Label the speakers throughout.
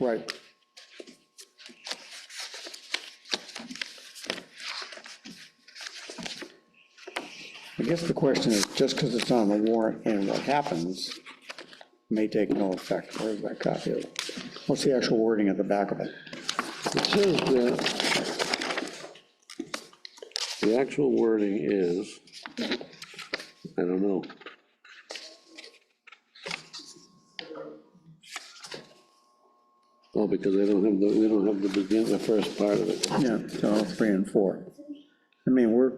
Speaker 1: Right. I guess the question is, just because it's on the warrant and what happens may take no effect. Where's that copy? What's the actual wording at the back of it?
Speaker 2: It says that the actual wording is, I don't know. Oh, because they don't have, the we don't have the begin, the first part of it.
Speaker 1: Yeah, so three and four. I mean, we're,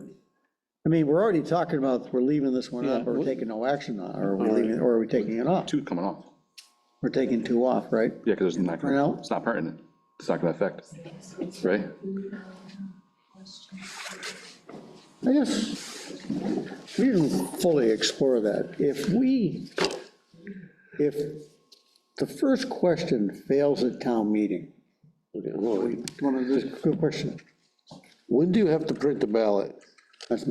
Speaker 1: I mean, we're already talking about, we're leaving this one up or taking no action on, or are we leaving, or are we taking it off?
Speaker 3: Two coming off.
Speaker 1: We're taking two off, right?
Speaker 3: Yeah, because it's not,
Speaker 1: Right now?
Speaker 3: gonna- it's not pertinent. It's not going to affect, right?
Speaker 1: I guess, we didn't fully explore that. If we, if the first question fails at town meeting,
Speaker 2: Okay, hold on.
Speaker 1: one of the, good question.
Speaker 2: When do you have to print the ballot?
Speaker 1: That's-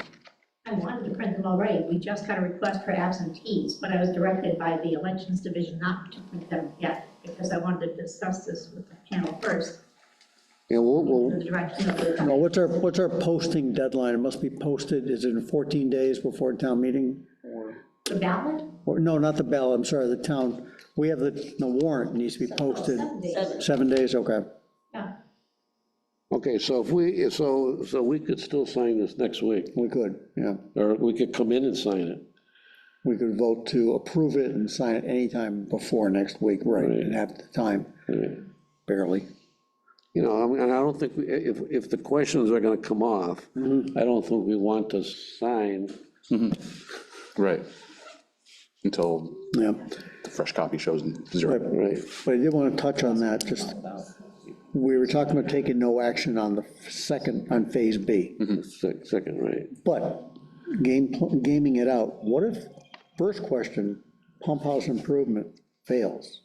Speaker 4: I wanted to print them already, we just got a request for absentees, but I was directed by the Elections Division not to print them yet, because I wanted to discuss this with the panel first,
Speaker 2: And we'll,
Speaker 4: the
Speaker 2: we'll,
Speaker 4: direction of the,
Speaker 1: No, what's our, what's our posting deadline? It must be posted, is it in 14 days before town meeting?
Speaker 4: the ballot?
Speaker 1: Or, no, not the ballot, I'm sorry, the town, we have the, the warrant needs to be posted.
Speaker 4: Oh, Seven days,
Speaker 1: Seven days, okay.
Speaker 4: yeah.
Speaker 2: okay, so if we, so, so we could still sign this next week,
Speaker 1: We could, yeah.
Speaker 2: or we could come in and sign it.
Speaker 1: We could vote to approve it and sign it anytime before next week, right, and have the time,
Speaker 2: Right.
Speaker 1: barely.
Speaker 2: You know, I mean, and I don't think, we- if, if the questions are gonna come off, I don't think we want to sign.
Speaker 3: Right. Until
Speaker 1: Yeah,
Speaker 3: the fresh copy shows zero.
Speaker 2: Right.
Speaker 1: but I did want to touch on that, just, we were talking about taking no action on the second, on Phase B.
Speaker 2: Sec- Second, right.
Speaker 1: But game, gaming it out, what if, first question, pump house improvement fails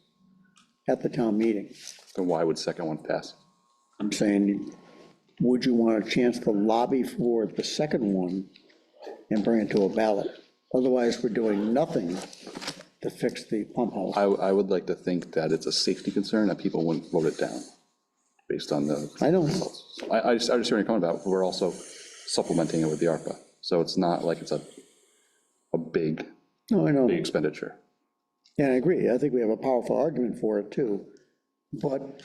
Speaker 1: at the town meeting?
Speaker 3: Then why would second one pass?
Speaker 1: I'm saying, would you want a chance to lobby for the second one and bring it to a ballot? Otherwise, we're doing nothing to fix the pump house.
Speaker 3: I, I would like to think that it's a safety concern that people wouldn't vote it down based on the
Speaker 1: I don't,
Speaker 3: I, I just, I just hear you comment about, we're also supplementing it with the ARPA, so it's not like it's a, a big,
Speaker 1: no, I know,
Speaker 3: big expenditure.
Speaker 1: and I agree, I think we have a powerful argument for it too, but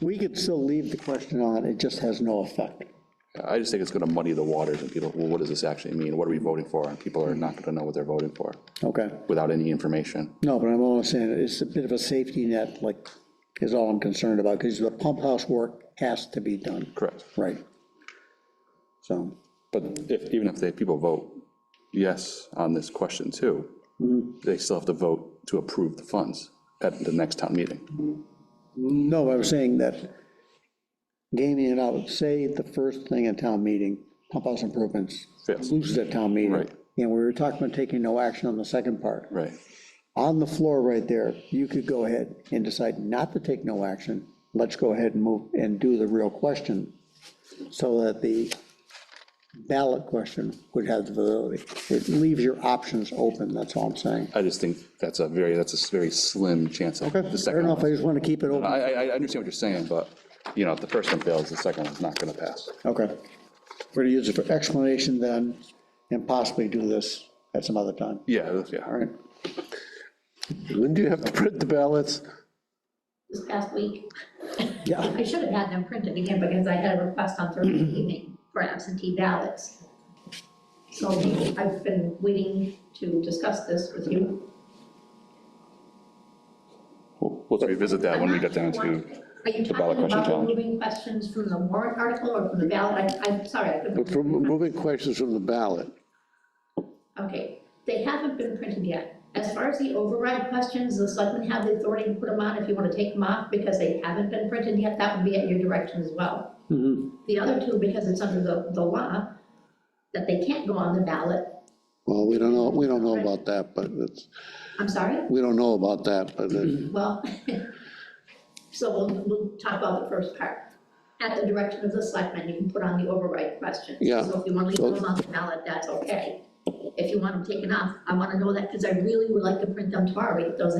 Speaker 1: we could still leave the question on, it just has no effect.
Speaker 3: I just think it's gonna muddy the waters, and people, well, what does this actually mean, what are we voting for, and people are not gonna know what they're voting for,
Speaker 1: Okay,
Speaker 3: without any information.
Speaker 1: no, but I'm only saying, it's a bit of a safety net, like, is all I'm concerned about, because the pump house work has to be done.
Speaker 3: Correct.
Speaker 1: Right. So,
Speaker 3: But if, even if they, people vote yes on this question too, they still have to vote to approve the funds at the next town meeting.
Speaker 1: no, I was saying that gaming it out, say the first thing at town meeting, pump house improvements,
Speaker 3: Fails.
Speaker 1: loses at town meeting.
Speaker 3: Right.
Speaker 1: And we were talking about taking no action on the second part.
Speaker 3: Right,
Speaker 1: On the floor right there, you could go ahead and decide not to take no action. Let's go ahead and move and do the real question so that the ballot question would have the validity. It leaves your options open, that's all I'm saying.
Speaker 3: I just think that's a very, that's a very slim chance of the
Speaker 1: I don't
Speaker 3: second
Speaker 1: know if
Speaker 3: one.
Speaker 1: I just want to keep it open.
Speaker 3: I, I, I understand what you're saying, but, you know, if the first one fails, the second one's not gonna pass.
Speaker 1: Okay. We're going to use it for explanation then, and possibly do this at some other time.
Speaker 3: Yeah, that's- yeah,
Speaker 1: All right.
Speaker 2: When do you have to print the ballots?
Speaker 4: This past week,
Speaker 1: Yeah,
Speaker 4: I should have had them printed again, because I had a request on Thursday evening for absentee ballots. So I've been waiting to discuss this with you.
Speaker 3: we'll we'll revisit that when we get down
Speaker 4: Are
Speaker 3: to,
Speaker 4: you
Speaker 3: the ballot
Speaker 4: talking
Speaker 3: question
Speaker 4: about
Speaker 3: challenge.
Speaker 4: removing questions from the warrant article or from the ballot? I- I'm sorry, I couldn't.
Speaker 2: From removing questions from the ballot.
Speaker 4: Okay, they haven't been printed yet. As far as the override questions, the selectmen have the authority to put them on if you want to take them off, because they haven't been printed yet, that would be at your direction as well.
Speaker 3: Mm-hmm.
Speaker 4: The other two, because it's under the, the law, that they can't go on the ballot,
Speaker 2: Well, we don't know, we don't know about that, but it's,
Speaker 4: I'm sorry,
Speaker 2: we don't know about that, but it-
Speaker 4: well, so we'll, we'll talk about the first part. At the direction of the selectmen, you can put on the override questions.
Speaker 2: Yeah,
Speaker 4: So if you want to
Speaker 2: so-
Speaker 4: leave them on the ballot, that's okay. If you want them taken off, I want to know that, because I really would like to print them tomorrow, if those